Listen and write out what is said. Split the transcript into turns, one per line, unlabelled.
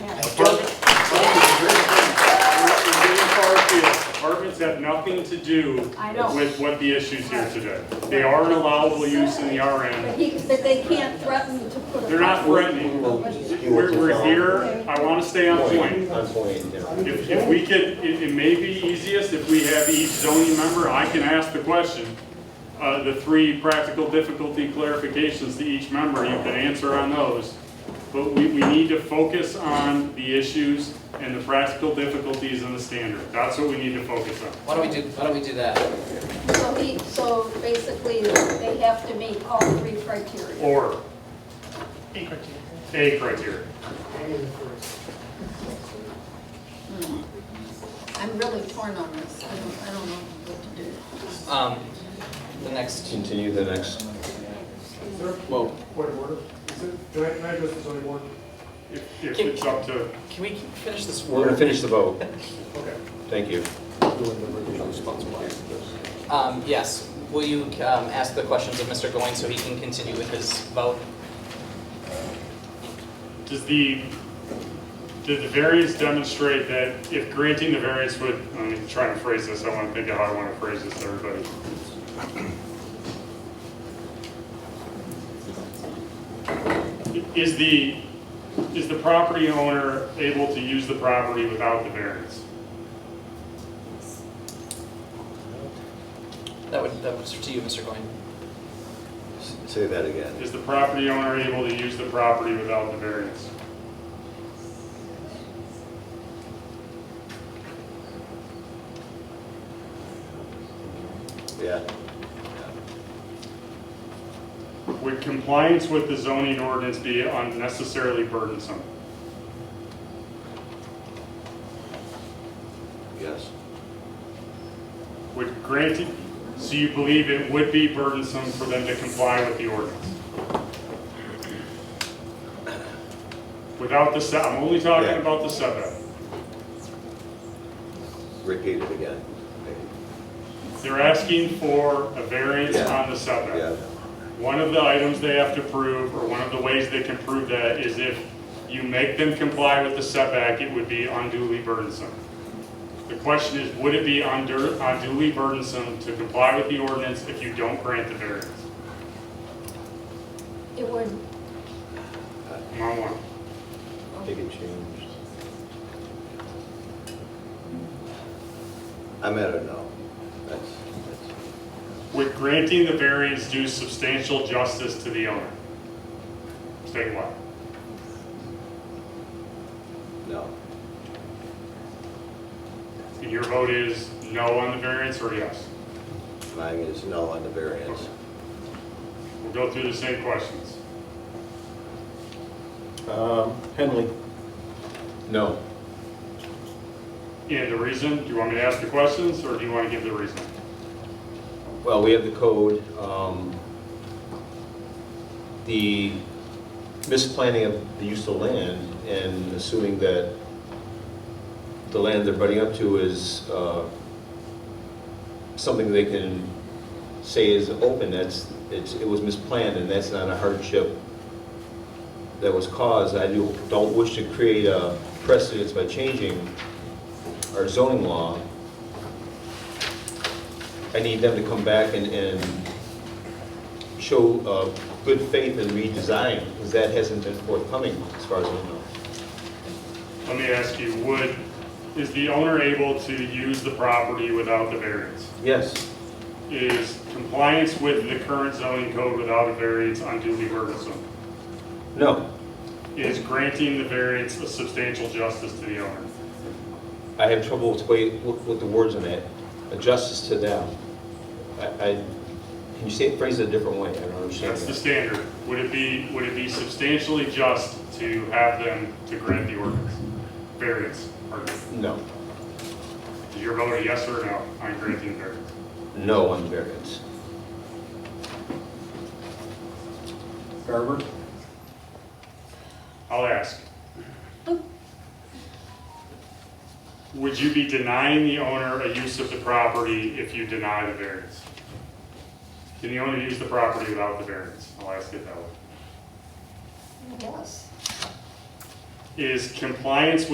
have nothing to do
I know.
with what the issues here today. They are an allowable use in the
But
RN.
he, but they can't threaten to put a.
They're not threatening. We're, we're here, I want to stay on point.
On point, yeah.
If, if we could, it, it may be easiest if we have each zoning member, I can ask the question, uh, the three practical difficulty clarifications to each member, you can answer on those. But we, we need to focus on the issues and the practical difficulties and the standard. That's what we need to focus on.
Why don't we do, why don't we do that?
So he, so basically, they have to meet all three criteria.
Or. A criteria.
I'm really torn on this, I don't, I don't know what to do.
Um, the next,
Continue the next,
Sir,
whoa,
point of order. Is it, can I, can I address this only one?
If, if it's up to,
can we finish this
we're gonna
word?
finish the vote,
Okay.
thank you.
Um, yes, will you, um, ask the questions of Mr. Goins so he can continue with his vote?
does the, did the variance demonstrate that if granting the variance would, I'm gonna try to phrase this, I want to think of how I want to phrase this to everybody. Is the, is the property owner able to use the property without the variance?
That would, that was to you, Mr. Goins.
S- Say that again.
Is the property owner able to use the property without the variance?
Yeah.
Would compliance with the zoning ordinance be unnecessarily burdensome?
Yes.
Would granting, so you believe it would be burdensome for them to comply with the ordinance? Without the, se- I'm only talking
Yeah.
about the setback.
Repeat it again.
They're asking for a variance
Yeah.
on the setback.
Yeah.
One of the items they have to prove, or one of the ways they can prove that, is if you make them comply with the setback, it would be unduly burdensome. The question is, would it be undur- unduly burdensome to comply with the ordinance if you don't grant the variance?
It would,
Am I one?
Take it changed. I'm at a no. That's, that's,
Would granting the variance do substantial justice to the owner? State what?
no.
And your vote is no on the variance or yes?
Mine is no on the variance.
We'll go through the same questions.
Henley? No.
And the reason, do you want me to ask the questions or do you want to give the reason?
Well, we have the code. um, The misplanning of the use of land and assuming that the land they're butting up to is uh, something they can say is open, that's, it's- it was misplanned and that's not a hardship that was caused. I do- don't wish to create a precedence by changing our zoning law. I need them to come back and, and show uh, good faith in redesign, because that hasn't been forthcoming as far as I know.
Let me ask you, would, is the owner able to use the property without the variance?
Yes.
Is compliance with the current zoning code without a variance unduly burdensome?
No,
Is granting the variance a substantial justice to the owner?
I have trouble with the way, with with the words on that, Uh, justice to them. I, I, can you say, it- phrase it a different way? I don't understand
That's the
that.
standard. Would it be, would it be substantially just to have them to grant the ordinance? Variance, pardon.
No,
Is your vote a yes or no on granting variance?
no on variance.
Garber?
I'll ask. Would you be denying the owner a use of the property if you deny the variance? Can the owner use the property without the variance? I'll ask it that way.
yes.
Is compliance with